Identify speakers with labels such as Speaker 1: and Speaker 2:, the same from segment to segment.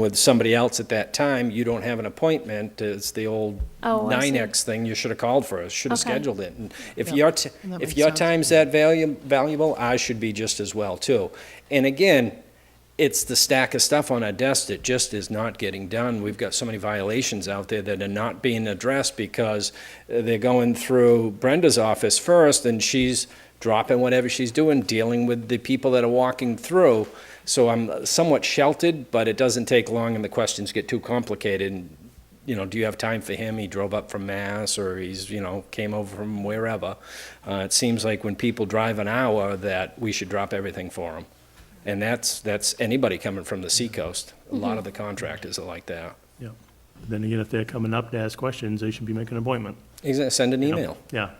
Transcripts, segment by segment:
Speaker 1: with somebody else at that time, you don't have an appointment, it's the old
Speaker 2: Oh, I see.
Speaker 1: 9X thing, you should have called for us, should have
Speaker 2: Okay.
Speaker 1: scheduled it. And if
Speaker 3: Yeah.
Speaker 1: your, t-
Speaker 3: And that
Speaker 1: if
Speaker 3: makes
Speaker 1: your
Speaker 3: sense.
Speaker 1: time's that valu- valuable, I should be just as well, too. And again, it's the stack of stuff on our desk that just is not getting done. We've got so many violations out there that are not being addressed because uh, they're going through Brenda's office first, and she's dropping whatever she's doing, dealing with the people that are walking through. So I'm somewhat sheltered, but it doesn't take long, and the questions get too complicated, and you know, do you have time for him? He drove up from Mass, or he's, you know, came over from wherever. Uh, it seems like when people drive an hour, that we should drop everything for them, and that's that's anybody coming from the seacoast. A lot of the contractors are like that.
Speaker 4: Yeah. Then again, if they're coming up to ask questions, they should be making an appointment.
Speaker 1: He's gonna send an
Speaker 4: you know?
Speaker 1: email.
Speaker 4: Yeah.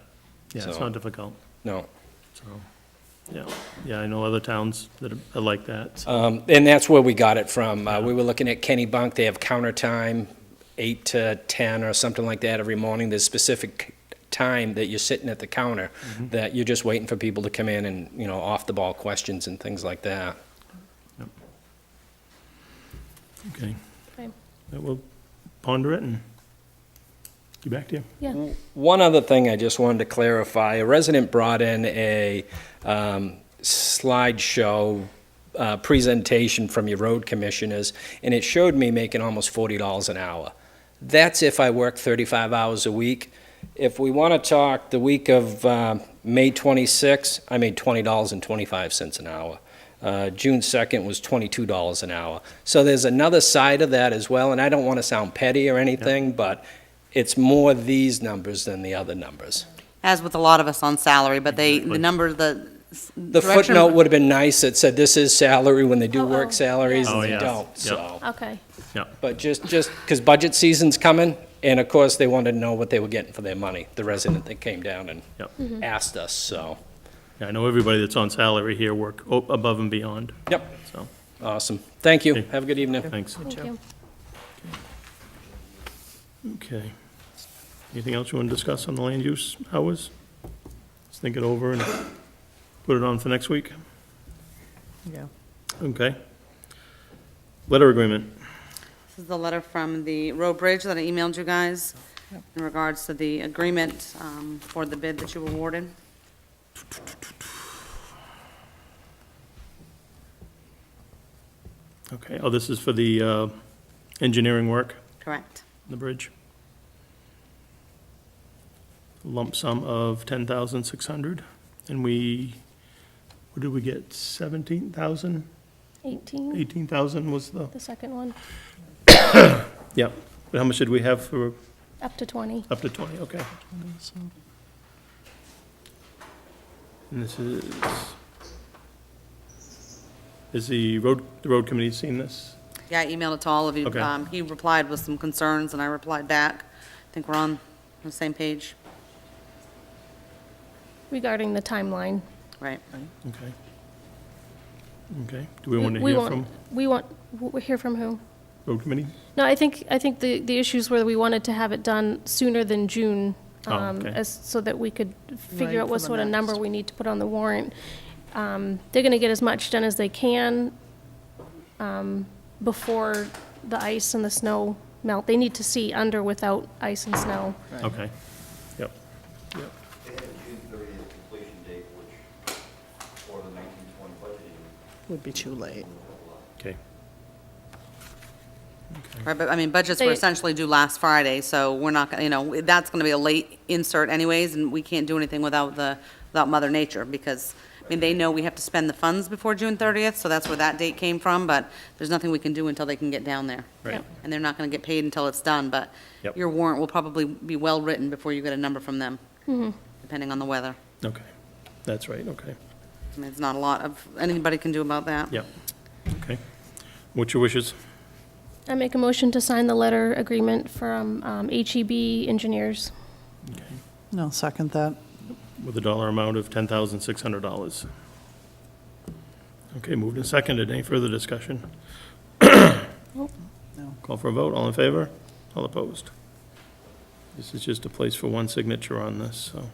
Speaker 4: Yeah, it's
Speaker 1: So-
Speaker 4: not difficult.
Speaker 1: No,
Speaker 4: So, yeah. Yeah, I know other towns that are like that. so-
Speaker 1: um, and that's where we got it from. Uh, we were looking at Kenny Bunk. They have counter time, eight to ten or something like that every morning. There's specific time that you're sitting at the counter that you're just waiting for people to come in and you know off the ball questions and things like that.
Speaker 4: Okay.
Speaker 2: Okay.
Speaker 4: Yeah, We'll ponder it and get back to you.
Speaker 2: Yeah,
Speaker 1: One other thing I just wanted to clarify, a resident brought in a um, slideshow uh, presentation from your road commissioners, and it showed me making almost $40 an hour. That's if I work 35 hours a week. If we want to talk, the week of um, May 26, I made $20.25 an hour. Uh, June 2nd was $22 an hour. So there's another side of that as well, and I don't want to sound petty or anything, but it's more these numbers than the other numbers.
Speaker 5: as with a lot of us on salary, but they,
Speaker 4: Exactly.
Speaker 5: the number, the. s-
Speaker 1: The
Speaker 5: direction-
Speaker 1: footnote would have been nice that said this is salary when they do
Speaker 2: Oh,
Speaker 1: work
Speaker 2: oh,
Speaker 1: salaries
Speaker 4: yeah. Oh,
Speaker 1: and they
Speaker 4: yeah.
Speaker 1: don't,
Speaker 4: Yep.
Speaker 1: so.
Speaker 2: okay.
Speaker 4: Yeah.
Speaker 1: But just, just, because budget season's coming, and of course, they wanted to know what they were getting for their money, the resident that came down
Speaker 4: Yep.
Speaker 1: and asked us, so.
Speaker 4: Yeah, I know everybody that's on salary here work o- above and beyond,
Speaker 1: Yep,
Speaker 4: so,
Speaker 1: awesome. Thank you.
Speaker 4: Okay.
Speaker 1: Have a good evening.
Speaker 4: thanks.
Speaker 2: Thank you.
Speaker 4: Okay. Anything else you want to discuss on the land use hours? Let's think it over and put it on for next week.
Speaker 3: Yeah.
Speaker 4: Okay. Letter agreement.
Speaker 5: This is the letter from the road bridge that I emailed you guys in regards to the agreement um, for the bid that you awarded.
Speaker 4: Okay, oh, this is for the uh, engineering work,
Speaker 5: Correct.
Speaker 4: on the bridge. Lump sum of 10,600, and we, what did we get, 17,000?
Speaker 2: 18,
Speaker 4: 18,000 was the,
Speaker 2: the second one,
Speaker 4: yeah. But how much did we have for
Speaker 2: up to 20.
Speaker 4: Up to 20, okay. And this is, is the road, the road committee seen this?
Speaker 5: Yeah, I emailed it to all of you.
Speaker 4: Okay.
Speaker 5: Um, He replied with some concerns, and I replied back. I think we're on the same page,
Speaker 2: Regarding the timeline.
Speaker 5: right?
Speaker 4: Okay. Okay, do we want to hear
Speaker 2: want-
Speaker 4: from
Speaker 2: We want, we hear from who?
Speaker 4: road committee?
Speaker 2: No, I think, I think the, the issues were that we wanted to have it done sooner than June,
Speaker 4: Oh,
Speaker 2: um,
Speaker 4: okay.
Speaker 2: as, so that we could
Speaker 3: Right,
Speaker 2: figure out what
Speaker 3: for the
Speaker 2: sort of number
Speaker 3: next.
Speaker 2: we need to put on the warrant. Um, they're gonna get as much done as they can, um, before the ice and the snow melt. They need to see under without ice and snow.
Speaker 4: Okay, yep, yep,
Speaker 6: They have a June thirtieth completion date, which, for the nineteen twenty budget year,
Speaker 3: Would be too late.
Speaker 4: okay.
Speaker 5: Right, but, I mean, budgets were
Speaker 2: They-
Speaker 5: essentially due last Friday, so we're not, gonna- you know, that's gonna be a late insert anyways, and we can't do anything without the, without Mother Nature, because, I mean, they know we have to spend the funds before June thirtieth, so that's where that date came from, but there's nothing we can do until they can get down there.
Speaker 4: Right. Yep.
Speaker 5: And they're not gonna get paid until it's done, but
Speaker 4: Yep.
Speaker 5: your warrant will probably be well-written before you get a number from them, depending on the weather.
Speaker 4: Okay, that's right, okay,
Speaker 5: I mean, there's not a lot of, anybody can do about that.
Speaker 4: yep, okay. What's your wishes?
Speaker 2: I make a motion to sign the letter agreement from um, HEB Engineers.
Speaker 4: Okay,
Speaker 3: No, second that.
Speaker 4: With a dollar amount of $10,600. Okay, moved and seconded, any further discussion?
Speaker 3: No.
Speaker 4: Call for a vote, all in favor? All opposed? This is just a place for one signature on this, so.